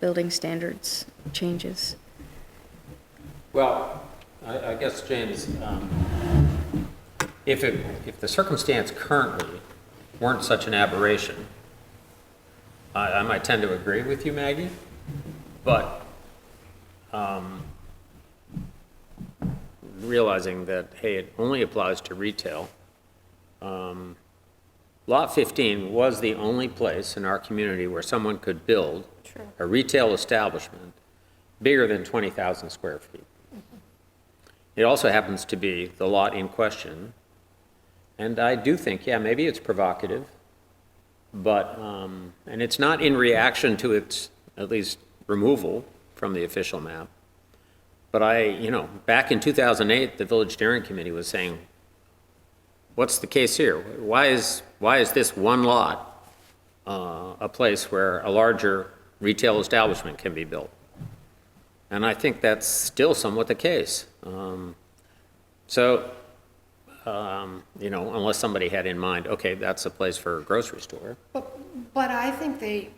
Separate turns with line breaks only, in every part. building standards changes.
Well, I, I guess, James, um, if it, if the circumstance currently weren't such an aberration, I, I might tend to agree with you, Maggie, but, um, realizing that, hey, it only applies to retail, um, Lot 15 was the only place in our community where someone could build a retail establishment bigger than 20,000 square feet. It also happens to be the lot in question. And I do think, yeah, maybe it's provocative, but, um, and it's not in reaction to its, at least, removal from the official map. But I, you know, back in 2008, the Village Steering Committee was saying, what's the case here? Why is, why is this one lot uh, a place where a larger retail establishment can be built? And I think that's still somewhat the case. Um, So, um, you know, unless somebody had in mind, okay, that's a place for a grocery store.
But, but I think they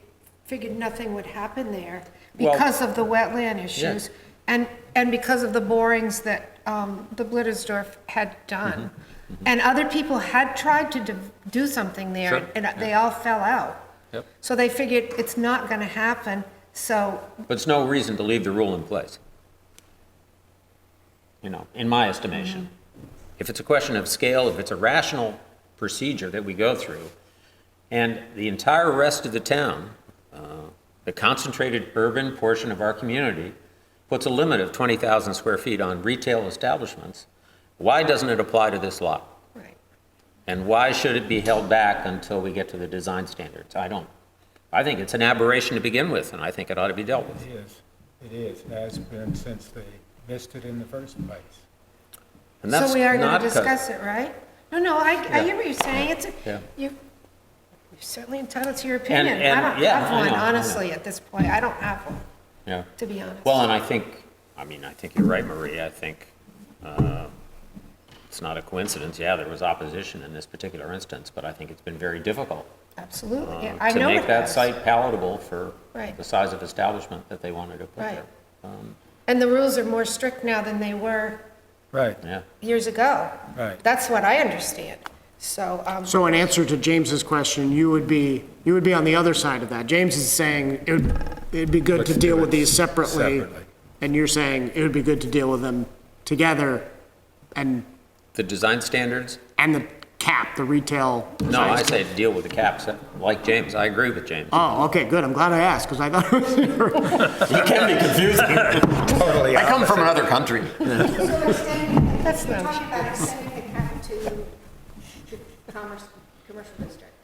figured nothing would happen there
Well-
because of the wetland issues and, and because of the borings that um, the Blittersdorf had done.
Mm-hmm.
And other people had tried to do- do something
Sure,
there and they all fell out.
Yep.
So they figured it's not going to happen, so,
But it's no reason to leave the rule in place. You know, in my estimation. If it's a question of scale, if it's a rational procedure that we go through, and the entire rest of the town, uh, the concentrated urban portion of our community, puts a limit of 20,000 square feet on retail establishments, why doesn't it apply to this lot?
right.
And why should it be held back until we get to the design standards? I don't, I think it's an aberration to begin with, and I think it ought to be dealt with.
It is, it is, It has been since they listed in the first place.
And that's
So we are going
not
to
cut-
discuss it, right? No, no, I, I hear what you're saying, it's,
Yeah.
you- you're certainly entitled to your opinion.
and-
I don't
yeah, I
have
know,
one,
I know.
honestly, at this point, I don't have one,
Yeah.
to be honest.
Well, and I think, I mean, I think you're right, Marie. I think uh, it's not a coincidence. Yeah, there was opposition in this particular instance, but I think it's been very difficult
Absolutely,
uh,
yeah, I
to
know it
make that
has.
site palatable for
Right.
the size of establishment that they wanted to put
Right.
there. Um,
And the rules are more strict now than they were
Right,
Yeah.
years ago.
Right.
That's what I understand, so, um,
So in answer to James's question, you would be, you would be on the other side of that. James is saying it would, it'd be good to deal with these separately.
Separately.
And you're saying it would be good to deal with them together and,
The design standards?
and the cap, the retail.
No, I say deal with the caps, like James. I agree with James.
Oh, okay, good. I'm glad I asked because I thought it was
It can be confusing.
totally
I come from another country.
So extending,
That's
you're
no
talking about extending the cap to the commerce, commercial district.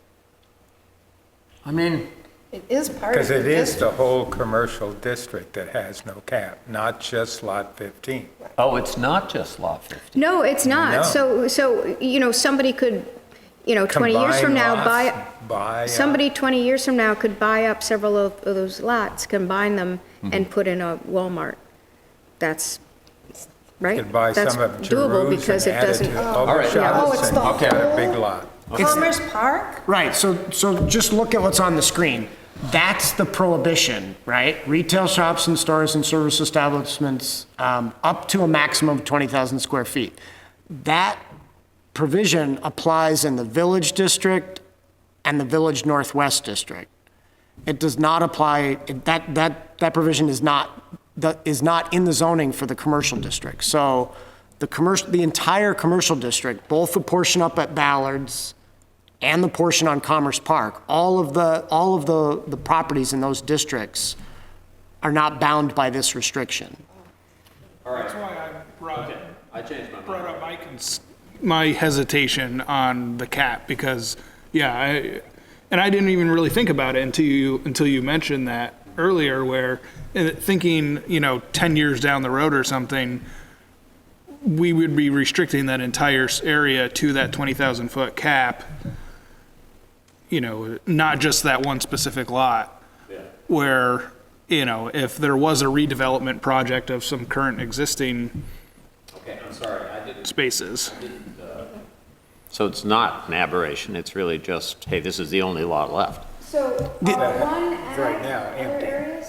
I mean,
it is part of
Because
the
it is the
district.
whole commercial district that has no cap, not just Lot 15.
Oh, it's not just Lot 15.
No, it's
No.
not. So, so, you know, somebody could, you know, 20 years from now,
Combine
buy,
lots, Buy. uh,
somebody 20 years from now could buy up several of of those lots, combine them,
Mm-hmm.
and put in a Walmart. That's, right?
Could buy
That's
some of
doable
Giroux
because
and
it
add it
doesn't.
to
All right.
Ogleshaw.
Oh, it's the
and got a
whole-
big lot.
Commerce Park?
Right, so, so just look at what's on the screen. That's the prohibition, right? Retail shops and stores and service establishments um, up to a maximum of 20,000 square feet. That provision applies in the Village District and the Village Northwest District. It does not apply, that, that, that provision is not, that is not in the zoning for the commercial district. So the commercial, the entire commercial district, both the portion up at Ballard's and the portion on Commerce Park, all of the, all of the, the properties in those districts are not bound by this restriction.
That's why I brought,
I changed my mind.
brought up my cons- my hesitation on the cap, because, yeah, I, and I didn't even really think about it until you, until you mentioned that earlier, where, uh, thinking, you know, ten years down the road or something, we would be restricting that entire s- area to that twenty thousand foot cap. You know, not just that one specific lot. Where, you know, if there was a redevelopment project of some current existing
Okay, I'm sorry, I didn't
spaces.
So it's not an aberration, it's really just, hey, this is the only lot left.
So, uh, one
Right now, empty.